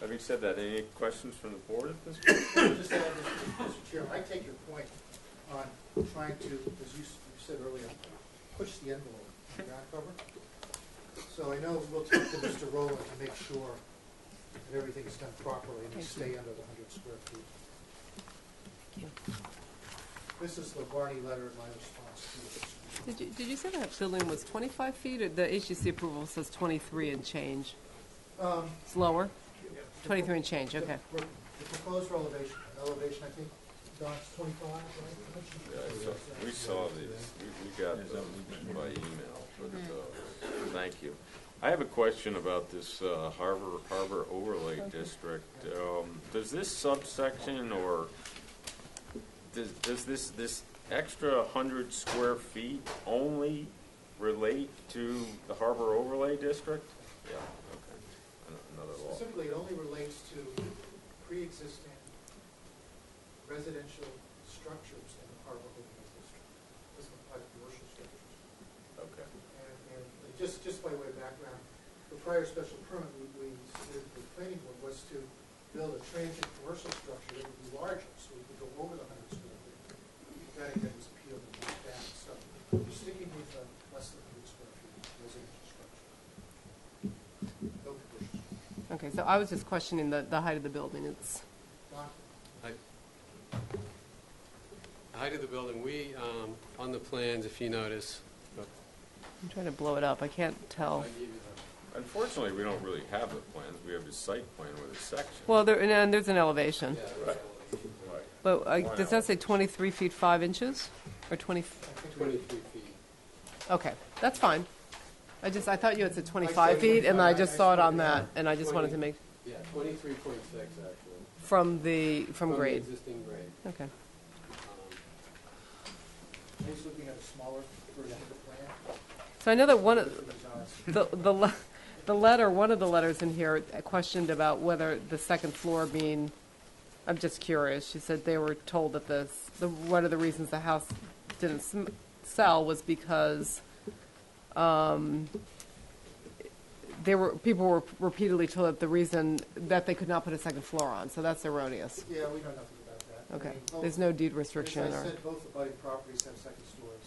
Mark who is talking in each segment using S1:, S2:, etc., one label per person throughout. S1: having said that, any questions from the board at this point?
S2: Just to add, Mr. Mr. Chair, I take your point on trying to, as you s- you said earlier, push the envelope on ground cover. So I know we'll talk to Mr. Rowland to make sure that everything's done properly and we stay under the hundred square feet. This is the Barney letter in my response to this.
S3: Did you, did you say that building was 25 feet, or the HGC approval says 23 and change?
S2: Um,
S3: It's lower?
S2: the-
S3: 23 and change,
S2: the-
S3: okay.
S2: The proposed elevation, elevation, I think, Don's twenty-five, right?
S1: Yeah, I saw- We saw these, we, we got them by email, but, uh, thank you. I have a question about this uh, harbor, harbor overlay district. Um, does this subsection or does, does this, this extra hundred square feet only relate to the harbor overlay district? Yeah, okay, An- another law.
S2: Specifically, it only relates to pre-existing residential structures in the harbor overlay district. Doesn't apply to commercial structures.
S1: Okay,
S2: And, and like, just, just by way of background, the prior special permit we, we, submitted to the planning board was to build a transient commercial structure that would be larger, so we could go over the hundred square feet. That again was appealed and knocked down, so we're sticking with the less than hundred square feet residential structure. No conditions.
S3: Okay, so I was just questioning the, the height of the building. It's,
S2: Don?
S4: Height height of the building, we, um, on the plans, if you notice,
S3: I'm trying to blow it up, I can't
S4: I
S3: tell.
S4: gave you the-
S1: unfortunately, we don't really have the plans, we have the site plan with a section.
S3: Well, there, and- and there's an elevation,
S4: yeah,
S1: Right. Right.
S3: but uh, does that say 23 feet 5 inches? Or 20,
S2: I think we-
S4: twenty-three feet.
S3: okay, that's fine. I just, I thought you had said 25
S4: 25
S3: feet, and I just saw it on
S2: I- I-
S3: that, and I just wanted to
S4: 20.
S3: make,
S4: Yeah, twenty-three point six, actually.
S3: from the, from
S4: the
S3: grade.
S4: existing grade.
S3: Okay,
S4: Um,
S2: He's looking at a smaller version of the plan.
S3: so I know that one of,
S2: Design.
S3: The, the, le- the letter, one of the letters in here questioned about whether the second floor being, I'm just curious, she said they were told that the, s- the, one of the reasons the house didn't sm- sell was because, um, they were, people were repeatedly told that the reason that they could not put a second floor on, so that's erroneous.
S2: Yeah, we know nothing about that. I
S3: Okay,
S2: mean, both-
S3: there's no deed
S2: As
S3: restriction
S2: I
S3: or,
S2: said, both abutting properties have second stories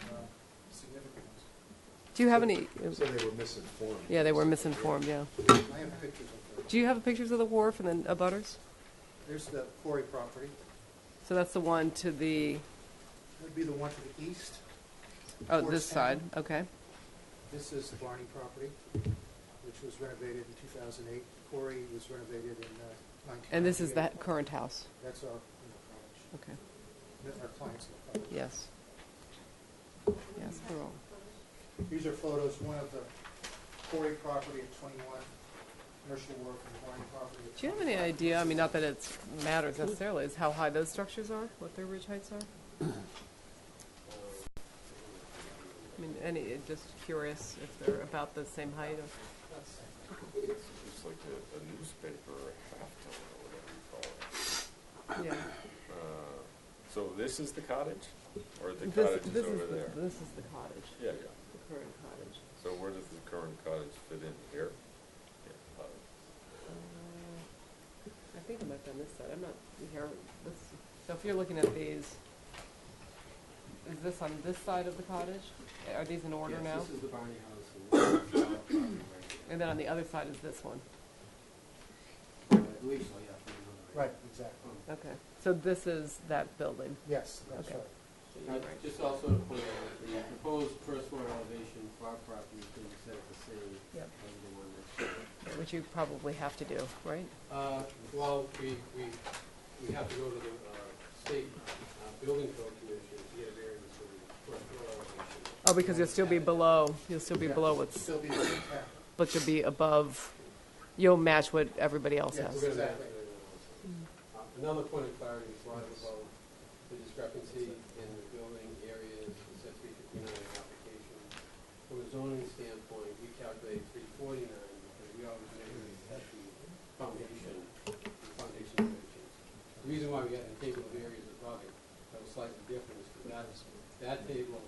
S2: and uh, significant ones.
S3: do you have any,
S5: So they were misinformed.
S3: yeah, they were misinformed, yeah.
S2: I have pictures of those.
S3: Do you have pictures of the wharf and then abutters?
S2: There's the quarry property.
S3: So that's the one to the,
S2: That'd be the one to the east.
S3: oh,
S2: Towards
S3: this side,
S2: Hampton.
S3: okay.
S2: This is the Barney property, which was renovated in 2008. Quarry was renovated in uh, 1998.
S3: And this is the current house?
S2: That's our, you know,
S3: Okay,
S2: college, our clients' college.
S3: yes. Yes, they're all,
S2: These are photos, one of the quarry property at 21, commercial work and the Barney property at
S3: do you have any
S2: 25.
S3: idea, I mean, not that it matters necessarily, is how high those structures are, what their ridge heights are? I mean, any, it- just curious if they're about the same height or,
S1: It's like a, a newspaper, or a halftone, or whatever you call it.
S3: yeah.
S1: Uh, So this is the cottage, or the
S3: This-
S1: cottage is
S3: this
S1: over
S3: the-
S1: there?
S3: This is the cottage,
S1: Yeah, yeah.
S3: the current cottage.
S1: So where does the current cottage fit in here? Yeah, cottage.
S3: Uh, I think I might be on this side, I'm not here, this, so if you're looking at these, is this on this side of the cottage? Are these in order now?
S4: Yes, this is the Barney house. and this is the property right here.
S3: And then on the other side is this one.
S4: I believe so, oh, yeah. if you remember
S2: Right, exactly.
S3: Okay. So this is that building.
S2: Yes, that's
S3: Okay.
S2: right.
S4: Uh, Just also to point out, the proposed first floor elevation for our property is going to be set at the same
S3: Yep.
S4: as the one next door.
S3: Which you probably have to do, right?
S4: Uh, Well, we, we, we have to go to the uh, state uh, building code commission to get a variance for the first floor elevation.
S3: Oh, because you'll still be below, you'll still be
S2: Yeah,
S3: below what's,
S2: Still be the same town.
S3: but you'll be above, you'll match what everybody else
S2: Yes.
S4: We're
S3: has.
S4: gonna match it anyways. Uh, Another point of clarity is why about the discrepancy in the building areas, it says three fifty-nine application. From a zoning standpoint, we calculate three forty-nine because we always measure it at the foundation, the foundation dimensions. The reason why we got the table of areas above it that was slightly different is because that, that table